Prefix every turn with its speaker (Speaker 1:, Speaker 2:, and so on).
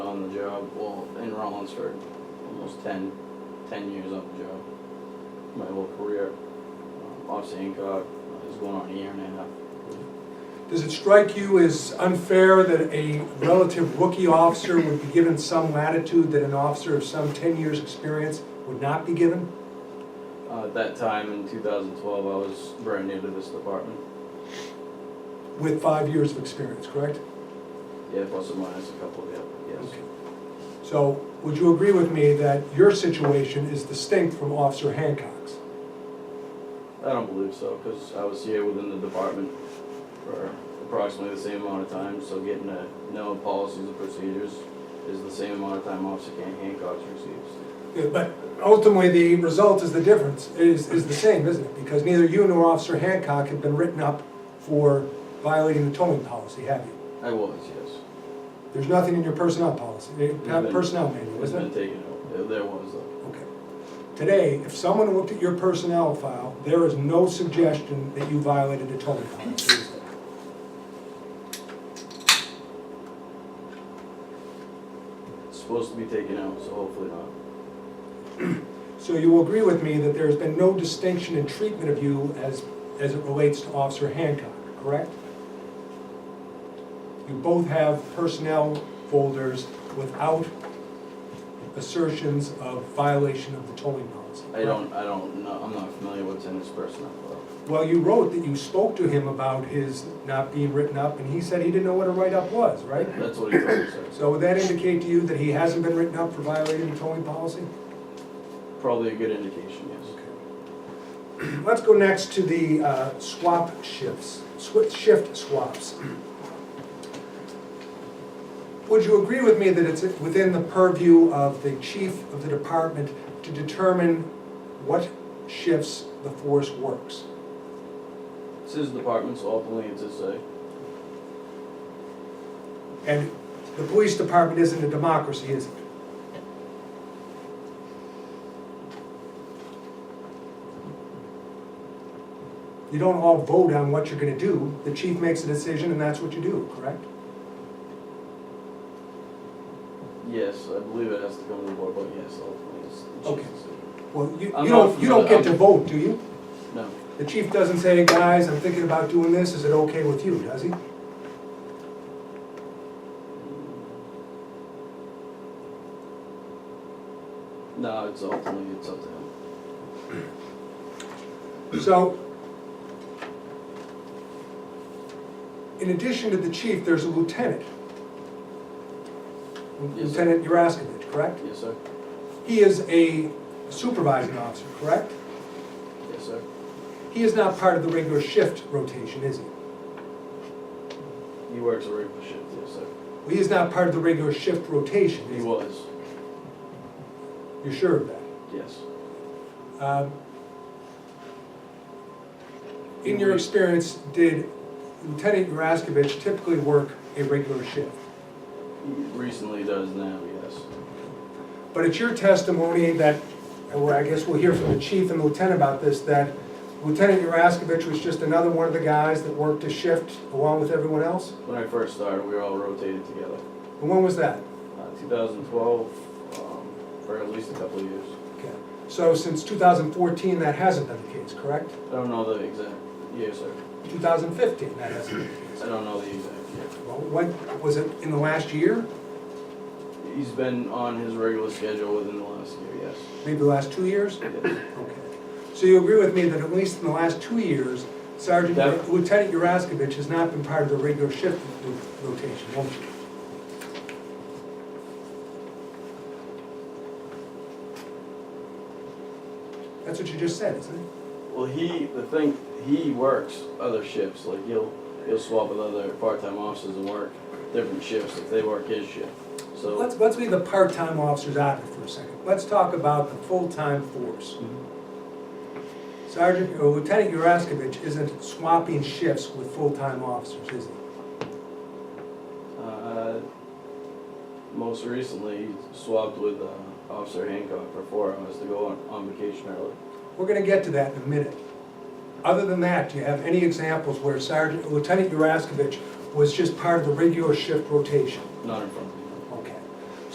Speaker 1: in Rollins for almost 10, 10 years on the job, my whole career. Um, Obviously, Hancock uh, is going on a year and a half.
Speaker 2: Does it strike you as unfair that a relative rookie officer would be given some latitude that an officer of some ten years' experience would not be given?
Speaker 1: Uh, At that time, in 2012, I was brand new to this department,
Speaker 2: With five years of experience, correct?
Speaker 1: yeah, plus or minus a couple of, yeah, yes.
Speaker 2: Okay. So, would you agree with me that your situation is distinct from Officer Hancock's?
Speaker 1: I don't believe so, because I was here within the department for approximately the same amount of time, so getting to know policies and procedures is the same amount of time Officer Han- Hancock receives.
Speaker 2: Yeah, But ultimately, the result is the difference, is, is the same, isn't it? Because neither you nor Officer Hancock have been written up for violating the towing policy, have you?
Speaker 1: I was, yes.
Speaker 2: There's nothing in your personnel policy, eh,
Speaker 1: Yeah, but-
Speaker 2: personnel manual,
Speaker 1: It's
Speaker 2: isn't it?
Speaker 1: been taken out, There- there was uh, though.
Speaker 2: Okay. Today, if someone looked at your personnel file, there is no suggestion that you violated the towing policy. is there?
Speaker 1: It's supposed to be taken out, so hopefully not.
Speaker 2: So you will agree with me that there's been no distinction in treatment of you as, as it relates to Officer Hancock, correct? You both have personnel folders without assertions of violation of the towing policy.
Speaker 1: I don't, I don't, know. I'm not familiar what's in this personnel file.
Speaker 2: Well, you wrote that you spoke to him about his not being written up, and he said he didn't know what a write-up was, right?
Speaker 1: That's what he told me, sir.
Speaker 2: So would that indicate to you that he hasn't been written up for violating the towing policy?
Speaker 1: Probably a good indication, yes.
Speaker 2: Let's go next to the uh, swap shifts, swi- shift swaps. Would you agree with me that it's within the purview of the chief of the department to determine what shifts the force works?
Speaker 1: It's his department, so ultimately it's his say.
Speaker 2: And the police department isn't a democracy, is it? You don't all vote on what you're gonna do, the chief makes a decision and that's what you do, correct?
Speaker 1: Yes, I believe it has to come to the board, but yes, ultimately it's the
Speaker 2: Okay.
Speaker 1: chief's decision.
Speaker 2: Well, you,
Speaker 1: I'm
Speaker 2: you don't,
Speaker 1: not
Speaker 2: you don't get to
Speaker 1: familiar-
Speaker 2: vote, do you?
Speaker 1: No,
Speaker 2: The chief doesn't say, guys, I'm thinking about doing this, is it okay with you, does he?
Speaker 1: no, it's ultimately, it's up to him.
Speaker 2: So, in addition to the chief, there's a lieutenant.
Speaker 1: Yes, sir.
Speaker 2: Lieutenant Yuraskovich, correct?
Speaker 1: Yes, sir?
Speaker 2: He is a supervising officer, correct?
Speaker 1: Yes, sir?
Speaker 2: He is not part of the regular shift rotation, is he?
Speaker 1: He works a regular shift, yes, sir.
Speaker 2: Well, He is not part of the regular shift rotation,
Speaker 1: He
Speaker 2: is
Speaker 1: was,
Speaker 2: he? You're sure of that?
Speaker 1: yes.
Speaker 2: Um, In your experience, did Lieutenant Yuraskovich typically work a regular shift?
Speaker 1: He recently does now, yes.
Speaker 2: But it's your testimony that, and well, I guess we'll hear from the chief and lieutenant about this, that Lieutenant Yuraskovich was just another one of the guys that worked a shift along with everyone else?
Speaker 1: When I first started, we were all rotated together.
Speaker 2: And when was that?
Speaker 1: Uh, 2012, um, for at least a couple of years.
Speaker 2: Okay. So since 2014, that hasn't been the case, correct?
Speaker 1: I don't know the exact year, sir.
Speaker 2: 2015, that hasn't been the case.
Speaker 1: I don't know the exact
Speaker 2: Well, what, was it in the last year,
Speaker 1: year. He's been on his regular schedule within the last year, yes.
Speaker 2: maybe the last two years?
Speaker 1: Yes.
Speaker 2: Okay. So you agree with me that at least in the last two years, Sergeant,
Speaker 1: That-
Speaker 2: Lieutenant Yuraskovich has not been part of the regular shift ro- rotation, won't you? That's what you just said, isn't it?
Speaker 1: Well, he, the thing, he works other shifts, like he'll, he'll swap with other part-time officers and work different shifts if they work his shift. So,
Speaker 2: Let's, let's leave the part-time officers out of it for a second. Let's talk about the full-time force.
Speaker 1: mhm.
Speaker 2: Sergeant, or Lieutenant Yuraskovich isn't swapping shifts with full-time officers, is he?
Speaker 1: uh, most recently, he swapped with uh, Officer Hancock for four hours to go on, on vacation early.
Speaker 2: We're gonna get to that in a minute. Other than that, do you have any examples where Sergeant, Lieutenant Yuraskovich was just part of the regular shift rotation?
Speaker 1: Not in front of me,